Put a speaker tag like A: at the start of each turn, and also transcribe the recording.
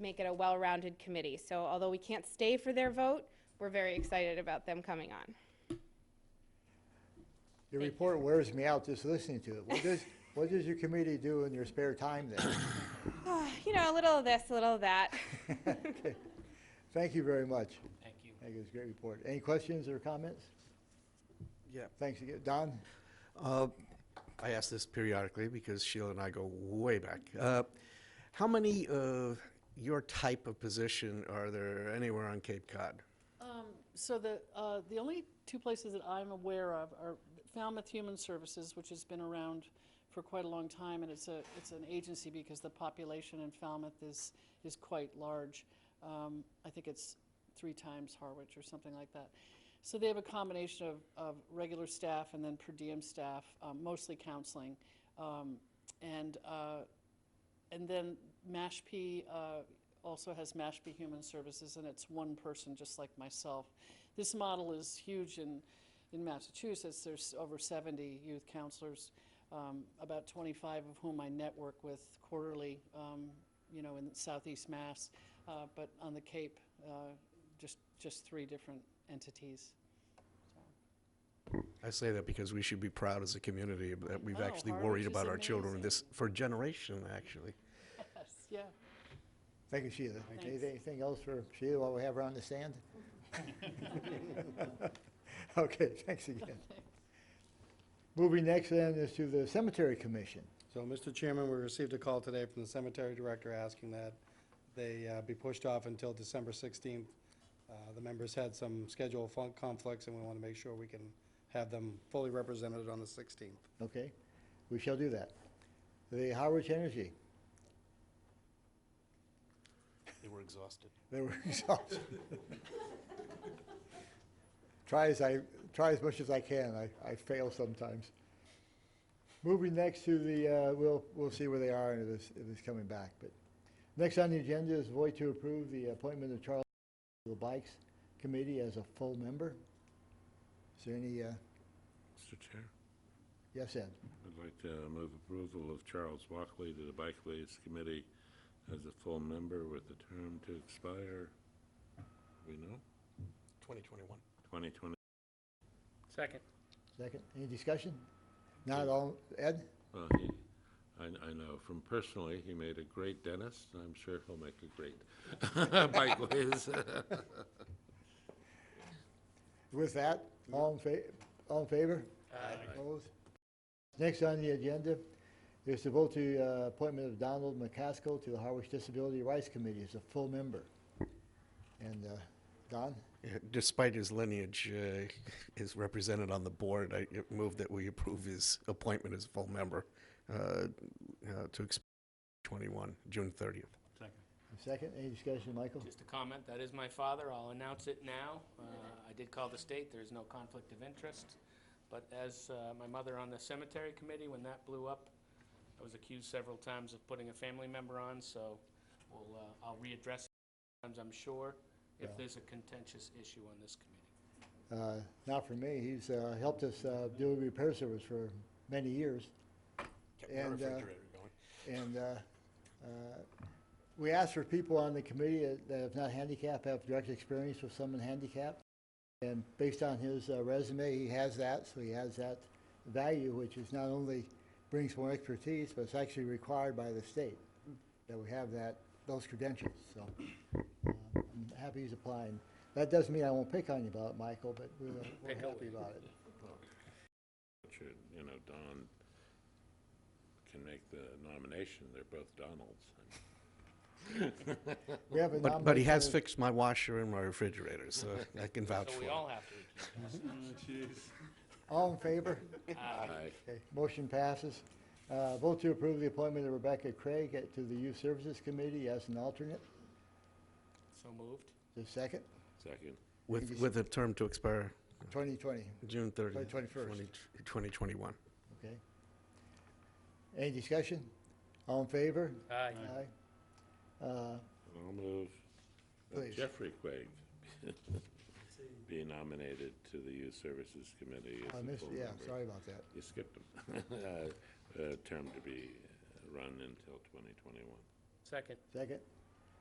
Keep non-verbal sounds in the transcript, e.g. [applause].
A: make it a well-rounded committee. So although we can't stay for their vote, we're very excited about them coming on. [sighs]
B: Your report wears me out just listening to it. What does, [laughs] what does your committee do in your spare time then?
A: You know, a little of this, a little of that. [laughs]
B: Okay. Thank you very much.
C: Thank you.
B: Thank you, it's a great report. Any questions or comments?
D: Yeah,
B: Thanks again. Don?
D: uh, I ask this periodically because Sheila and I go way back. Uh, How many of your type of position are there anywhere on Cape Cod?
E: Um, So the, uh, the only two places that I'm aware of are Falmouth Human Services, which has been around for quite a long time, and it's a, it's an agency because the population in Falmouth is, is quite large. Um, I think it's three times Harwich or something like that. So they have a combination of, of regular staff and then per diem staff, um, mostly counseling. Um, And uh, and then Mashpee uh, also has Mashpee Human Services, and it's one person, just like myself. This model is huge in, in Massachusetts. There's over 70 youth counselors, um, about 25 of whom I network with quarterly, um, you know, in Southeast Mass, uh, but on the Cape, uh, just just three different entities.
D: I say that because we should be proud as a community that we've
E: know,
D: actually
E: Harwich
D: worried
E: Oh, is
D: about our children,
E: amazing.
D: this, for a generation, actually.
E: Yes, yeah.
B: Thank you, Sheila. Anything- Anything else for Sheila while we have her on the
C: [laughs]
B: stand? Okay, thanks again. Moving next then is to the Cemetery Commission.
F: So, Mr. Chairman, we received a call today from the cemetery director asking that they uh, be pushed off until December 16th. Uh, The members had some schedule fun- conflicts, and we want to make sure we can have them fully represented on the 16th.
B: Okay, we shall do that. The Howard Energy,
D: They were exhausted.
B: they were [laughs] exhausted. Try as I, try as much as I can, I, I fail sometimes. Moving next to the, uh, we'll, we'll see where they are and if it's, if it's coming back, but. Next on the agenda is void to approve the appointment of Charles to the Bikes Committee as a full member. Is there any, uh,
G: Mr. Chair.
B: yes, Ed?
G: I'd like to move approval of Charles Walkley to the Bikeways Committee as a full member with a term to expire, we know,
D: 2021.
G: 2020.
C: Second.
B: Second, any discussion? Not all, Ed?
G: Well, he, I, I know from personally, he made a great dentist, and I'm sure he'll make a great [laughs] Bikeways.
B: With that, all in fa, all in favor? Opposed? Next on the agenda is to vote to, uh, appointment of Donald McCaskill to the Harwich Disability Rights Committee as a full member. And, uh, Don,
D: Despite his lineage uh, is represented on the board, I move that we approve his appointment as a full member uh, uh, to expire 21, June 30th.
B: a second, any discussion, Michael?
C: Just a comment, that is my father, I'll announce it now. Uh, I did call the state, there is no conflict of interest. But as uh, my mother on the cemetery committee, when that blew up, I was accused several times of putting a family member on, so we'll, uh, I'll readdress it times, I'm sure, if there's a contentious issue on this committee.
B: Uh, Not for me. He's uh, helped us uh, do a repair service for many years. And, uh, And uh, uh, we asked for people on the committee that have not handicapped, have direct experience with someone handicapped. And based on his uh, resume, he has that, so he has that value, which is not only brings more expertise, but it's actually required by the state that we have that, those credentials. So uh, I'm happy he's applying. That doesn't mean I won't pick on you about it, Michael, but we're we're
C: Pick
B: happy
C: away.
B: about it.
G: Richard, you know, Don can make the nomination, they're both Donalds.
B: We have a
D: But, but he has
B: nomination-
D: fixed my washer and my refrigerator, so I can vouch
C: So
D: for
C: we
D: it.
C: all have to recuse.
B: All in favor?
G: Aye.
B: Okay, Motion passes. Uh, Vote to approve the appointment of Rebecca Craig at- to the Youth Services Committee as an alternate.
C: So moved.
B: The second,
G: Second.
D: With, with a term to expire
B: 2020,
D: June 30th.
B: 21st.
D: 20 2021.
B: okay? Any discussion? All in favor?
C: Aye.
B: Aye. Uh,
G: I'll move that
B: Please.
G: Jeffrey Quaig be nominated to the Youth Services Committee as
B: I
G: a
B: missed,
G: full
B: yeah,
G: member.
B: sorry about that.
G: You skipped him. [laughs] Uh, uh, Term to be run until 2021.
C: Second.
B: Second,